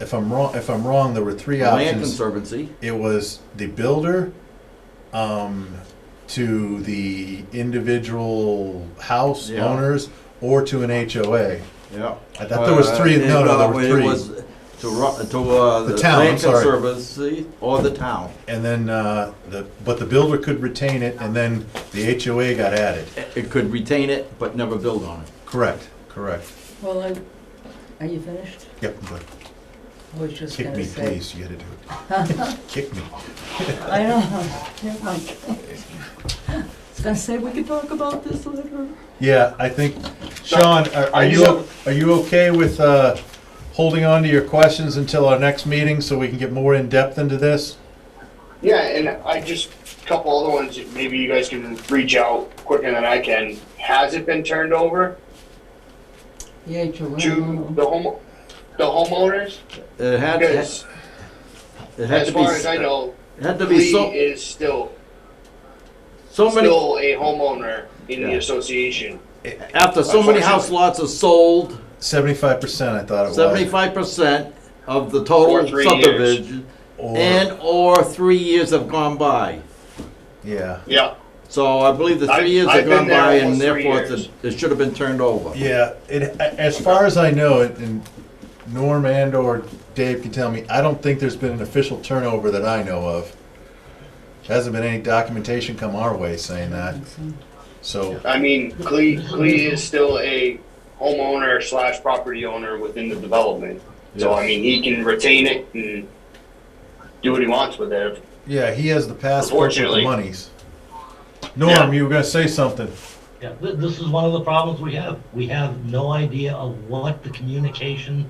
if I'm wrong, if I'm wrong, there were three Land options. Conservancy, It was the builder, um, to the individual house Yeah. owners, or to an HOA. yeah. I thought there was three, Uh, no, no, there well, were it three. was To, ru- to, uh, The the town, I'm Land sorry. Conservancy or the town. And then, uh, the, but the builder could retain it, and then the HOA got added. It it could retain it, but never build on it. Correct, correct. Well, I, are you finished? Yep, but I was just kick gonna me, say. please, you had to do it. Kick me. I know, never mind. I was gonna say, we could talk about this later. Yeah, I think, Sean, are are you, are you okay with uh, holding on to your questions until our next meeting so we can get more in-depth into this? Yeah, and I just, a couple other ones, that maybe you guys can reach out quicker than I can. Has it been turned over Yeah, Joanne. to the home, the homeowners? It Mm-hmm. had, it Because had as to be, far as I it know, had to be Lee so, is still, so many. still a homeowner in the Yeah. association. After so many house lots are sold, Seventy-five percent, I thought it was. seventy-five percent of the Or total three subdivision, Or- and/or three years have gone by. Yeah, Yeah, So I believe the I- three years I've have gone been there by, and almost three therefore it's years. a- it should have been turned over. yeah, it, a- as far as I know, it, and Norm and or Dave can tell me, I don't think there's been an official turnover that I know of. Hasn't been any documentation come our way saying that, um, so, I mean, Clee, Clee is still a homeowner slash property owner within the development. So, I mean, he can retain it and do what he wants with it. yeah, he has the passport with the Unfortunately. monies. Norm, you were gonna say something. Yeah, th- this is one of the problems we have. We have no idea of what the communication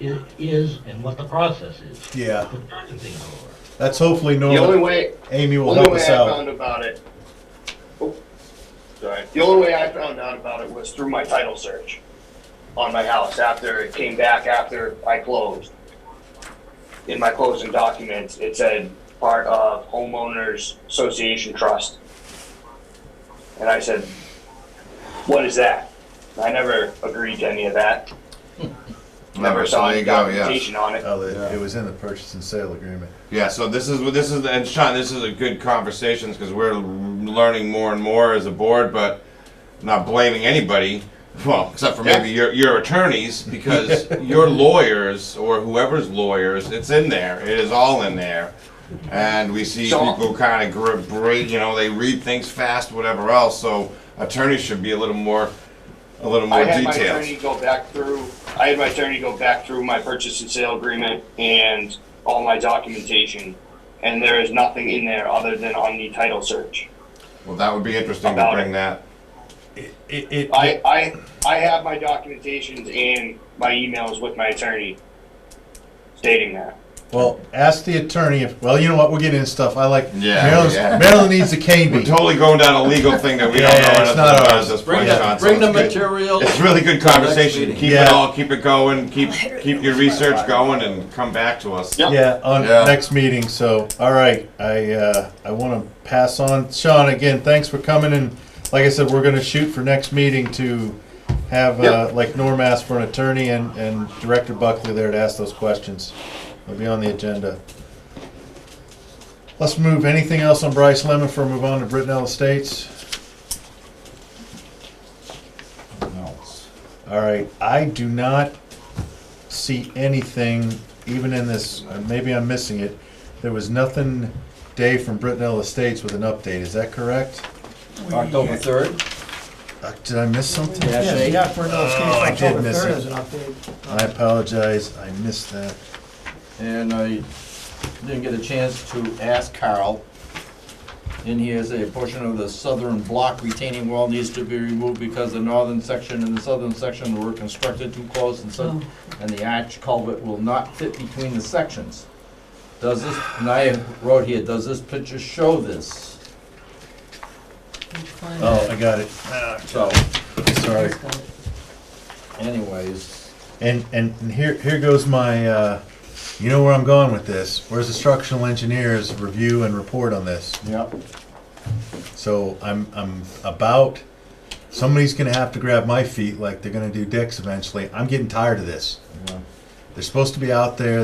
i- is and what the process is. Yeah, Put the thing over. that's hopefully The only Norm, way, Amy will only help way I us out. found about it. oh, Sorry. The only way I found out about it was through my title search on my house after it came back after I closed. In my closing documents, it said part of homeowners association trust. And I said, what is that? I never agreed to any of that. Never Never, Hmm. so saw there any you go, yeah. documentation on it. Oh, it- it was in the purchase and sale agreement. Yeah, so this is, this is, and Sean, this is a good conversations, because we're learning more and more as a board, but not blaming anybody, well, except for maybe your, your attorneys, because your lawyers, or whoever's lawyers, it's in there, it is all in there. And we see So- people kind of grip, you know, they read things fast, whatever else, so attorneys should be a little more, a little I more had my attorney detailed. go back through, I had my attorney go back through my purchase and sale agreement and all my documentation. And there is nothing in there other than on the title search. Well, that would be interesting to About it. bring that, It, it, it- I, I, I have my documentations and my emails with my attorney stating that. well, ask the attorney if, well, you know what, we're getting into stuff, I like, Yeah, Maryland's- yeah. Maryland needs a cane We're bee. totally going down a legal thing that we don't Yeah, know yeah, it's anything not about ours. at this Bring point, the, John. so bring the it's good. material. It's really good conversation. meeting. Keep it Yeah. all, keep it going, keep, keep your research going and come back to us. Yep. Yeah, on Yeah. next meeting, so, all right, I, uh, I wanna pass on, Sean, again, thanks for coming, and like I said, we're gonna shoot for next meeting to have, uh, like Norm asked for an attorney and, and Director Buckley there to ask those questions. It'll be on the agenda. Let's move, anything else on Bryce Lemon before we move on to Brittenell Estates? All right, I do not see anything, even in this, uh, maybe I'm missing it. There was nothing, Dave from Brittenell Estates with an update, is that correct? October third. Uh, Did I miss something? Yeah, Yeah, they- you got for another Oh, I October did miss third it. as an update. I apologize, I missed that. And I didn't get a chance to ask Carl. In here, say a portion of the southern block retaining wall needs to be removed because the northern section and the southern section were constructed too close and so, and the arch culvert will not fit between the sections. Does this, and I wrote here, does this picture show this? Oh, I got it, So, sorry. anyways, And, and and here, here goes my, uh, you know where I'm going with this. Where's the structural engineers review and report on this? yep. So I'm, I'm about, somebody's gonna have to grab my feet like they're gonna do Dick's eventually. I'm getting tired of this. Yeah. They're supposed to be out there,